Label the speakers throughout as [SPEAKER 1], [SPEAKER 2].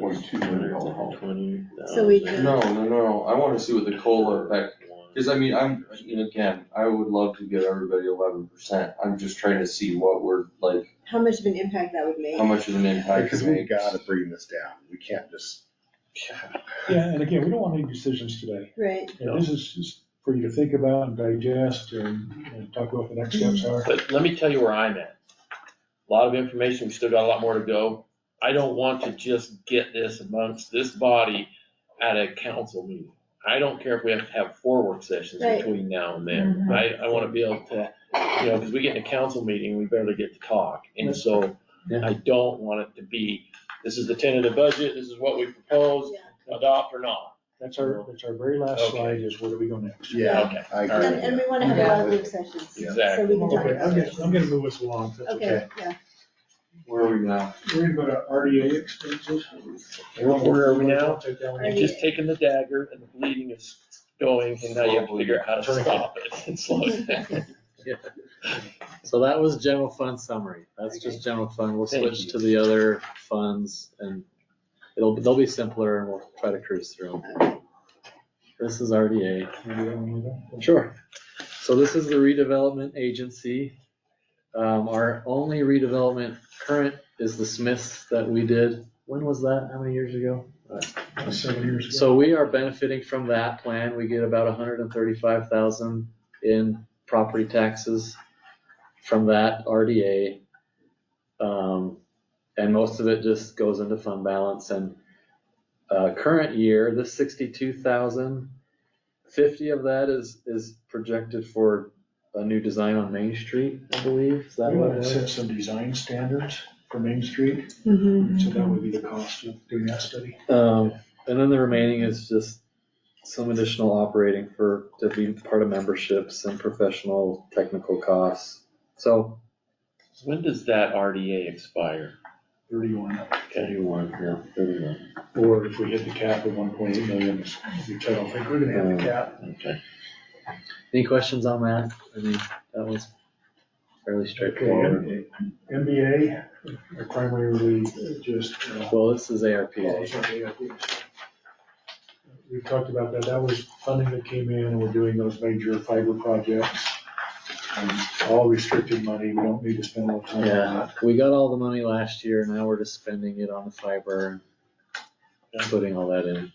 [SPEAKER 1] 0.2 million.
[SPEAKER 2] So we could-
[SPEAKER 1] No, no, no, I wanna see what the COLA effect, cause I mean, I'm, and again, I would love to give everybody eleven percent, I'm just trying to see what we're, like,
[SPEAKER 2] How much of an impact that would make?
[SPEAKER 1] how much of an impact
[SPEAKER 3] Because
[SPEAKER 1] it
[SPEAKER 3] we
[SPEAKER 1] makes.
[SPEAKER 3] gotta bring this down, we can't just,
[SPEAKER 4] Yeah, and again, we don't want to make decisions today.
[SPEAKER 2] Right,
[SPEAKER 4] You know, This is just for you to think about and digest and, and talk about what the next steps are.
[SPEAKER 5] But let me tell you where I'm at. A Lot of information, we still got a lot more to go. I don't want to just get this amongst this body at a council meeting. I don't care if we have to have four work sessions
[SPEAKER 2] Right. Mm-hmm.
[SPEAKER 5] between now and then. I, I wanna be able to, you know, cause we get in a council meeting, we barely get to talk. And so I don't want it to be, this is the tentative budget, this is what we propose,
[SPEAKER 2] yeah.
[SPEAKER 5] adopt or not.
[SPEAKER 4] That's our, that's our very last
[SPEAKER 5] Okay.
[SPEAKER 4] slide is where do we go next?
[SPEAKER 3] yeah, I
[SPEAKER 5] All
[SPEAKER 2] And,
[SPEAKER 3] agree.
[SPEAKER 5] right.
[SPEAKER 2] and we wanna have a lot of work sessions, so
[SPEAKER 5] Exactly.
[SPEAKER 2] we can talk
[SPEAKER 4] Okay, I'm
[SPEAKER 2] about
[SPEAKER 4] gonna,
[SPEAKER 2] it.
[SPEAKER 4] I'm gonna move us along. if that's
[SPEAKER 2] Okay, yeah,
[SPEAKER 1] Where are we now?
[SPEAKER 4] We're gonna go to RDA expenses.
[SPEAKER 5] Where are we now?
[SPEAKER 4] Take that one.
[SPEAKER 5] You're just taking the dagger and the bleeding is going and now you have to figure out how to stop it and slow it down.
[SPEAKER 6] So that was general fund summary. That's just general fund. We'll
[SPEAKER 5] Thank
[SPEAKER 6] switch
[SPEAKER 5] you.
[SPEAKER 6] to the other funds and it'll, they'll be simpler and we'll try to cruise through them. This is RDA. Sure. So this is the redevelopment agency. Um, our only redevelopment current is the Smiths that we did. When was that? How many years ago?
[SPEAKER 4] Seven years ago.
[SPEAKER 6] So we are benefiting from that plan. We get about hundred and thirty-five thousand in property taxes from that RDA. Um, and most of it just goes into fund balance and, uh, current year, this sixty-two thousand, fifty of that is, is projected for a new design on Main Street, I believe. Is that
[SPEAKER 4] We
[SPEAKER 6] what
[SPEAKER 4] want
[SPEAKER 6] it
[SPEAKER 4] to
[SPEAKER 6] was?
[SPEAKER 4] set some design standards for Main Street,
[SPEAKER 2] hmm
[SPEAKER 4] so that would be the cost of doing that study.
[SPEAKER 6] Um, and then the remaining is just some additional operating for, to be part of memberships and professional technical costs. So,
[SPEAKER 5] When does that RDA expire?
[SPEAKER 4] Thirty-one,
[SPEAKER 5] Thirty-one, yeah, thirty-one.
[SPEAKER 4] or if we hit the cap of one point eight million, which I don't think we're gonna
[SPEAKER 5] Uh,
[SPEAKER 4] have the cap.
[SPEAKER 5] Okay.
[SPEAKER 6] any questions on that? I mean, that was fairly straightforward.
[SPEAKER 4] Okay, MBA, primarily just, uh,
[SPEAKER 6] Well, this is
[SPEAKER 4] well,
[SPEAKER 6] ARPA.
[SPEAKER 4] it's not AIPs. We talked about that, that was funding that came in, and we're doing those major fiber projects. Um, All restricted money, we don't need to spend a lot of time on
[SPEAKER 6] Yeah,
[SPEAKER 4] that.
[SPEAKER 6] we got all the money last year, now we're just spending it on the fiber and putting all that in.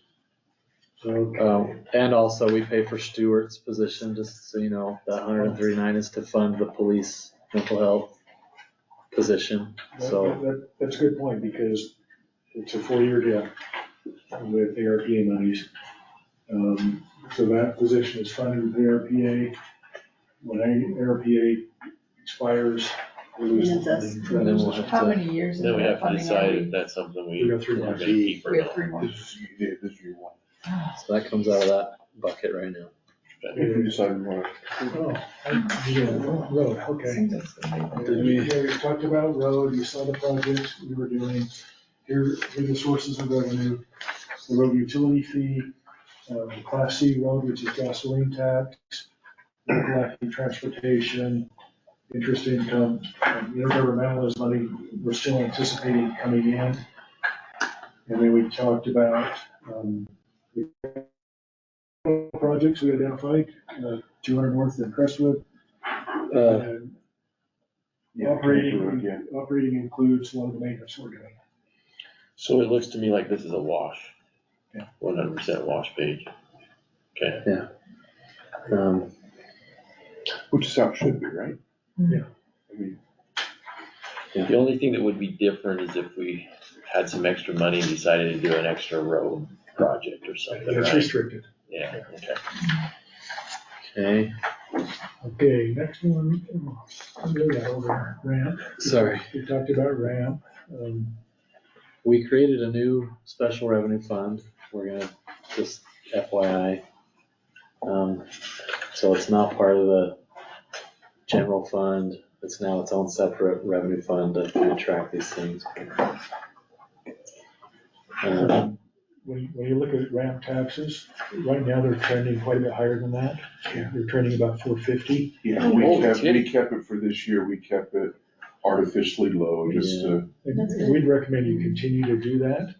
[SPEAKER 4] So,
[SPEAKER 6] Um, and also we pay for Stewart's position, just so you know, that hundred and thirty-nine is to fund the police mental health position,
[SPEAKER 4] That-
[SPEAKER 6] so.
[SPEAKER 4] that- That's a good point, because it's a four-year gap with ARPA monies. Um, So that position is funded with ARPA. When A- ARPA expires, we lose the
[SPEAKER 2] And it's
[SPEAKER 4] funding.
[SPEAKER 6] And then we'll have
[SPEAKER 7] How
[SPEAKER 6] to,
[SPEAKER 7] many years is
[SPEAKER 5] Then we
[SPEAKER 7] that
[SPEAKER 5] have to
[SPEAKER 7] funding
[SPEAKER 5] decide
[SPEAKER 7] are
[SPEAKER 5] if
[SPEAKER 7] we?
[SPEAKER 5] that's something we
[SPEAKER 4] We
[SPEAKER 5] are
[SPEAKER 4] got three
[SPEAKER 5] gonna
[SPEAKER 4] months.
[SPEAKER 5] keep or
[SPEAKER 7] We have
[SPEAKER 5] not.
[SPEAKER 7] three months.
[SPEAKER 1] This is, yeah, this is your one.
[SPEAKER 6] so that comes out of that bucket right now.
[SPEAKER 1] If you decide you wanna-
[SPEAKER 4] Oh, I- yeah, Oh, Road, okay.
[SPEAKER 7] Seems like it's gonna be-
[SPEAKER 6] Did we-
[SPEAKER 4] Yeah, we talked about road, you saw the projects we were doing, here, here are the sources of revenue, the road utility fee, um, class C road, which is gasoline tax, local active transportation, interest income, um, intergovernmental is money we're still anticipating coming in. And then we talked about, um, the projects we identified, uh, two hundred north in Crestwood,
[SPEAKER 6] Uh,
[SPEAKER 4] and
[SPEAKER 1] Yeah,
[SPEAKER 4] Operating,
[SPEAKER 1] yeah.
[SPEAKER 4] operating includes a lot of the maintenance we're doing.
[SPEAKER 5] So it looks to me like this is a wash.
[SPEAKER 4] Yeah.
[SPEAKER 5] One hundred percent wash page. Okay.
[SPEAKER 6] um,
[SPEAKER 1] Which is how it should be, right?
[SPEAKER 4] Yeah.
[SPEAKER 1] I mean,
[SPEAKER 5] The only thing that would be different is if we had some extra money and decided to do an extra road project or something,
[SPEAKER 4] It's
[SPEAKER 5] right?
[SPEAKER 4] restricted.
[SPEAKER 5] Yeah, okay.
[SPEAKER 6] okay,
[SPEAKER 4] Okay, next one, I'm gonna go over ramp.
[SPEAKER 6] sorry.
[SPEAKER 4] We talked about ramp. Um,
[SPEAKER 6] We created a new special revenue fund. We're gonna, just FYI. Um, so it's not part of the general fund. It's now its own separate revenue fund to kind of track these things. Um,
[SPEAKER 4] When, when you look at ramp taxes, right now they're trending quite a bit higher than that.
[SPEAKER 1] Yeah.
[SPEAKER 4] They're trending about four fifty.
[SPEAKER 1] Yeah, we
[SPEAKER 5] Oh,
[SPEAKER 1] kept, we
[SPEAKER 5] kidding.
[SPEAKER 1] kept it for this year, we kept it artificially low, just to,
[SPEAKER 2] That's
[SPEAKER 4] And
[SPEAKER 2] good.
[SPEAKER 4] we'd recommend you continue to do that.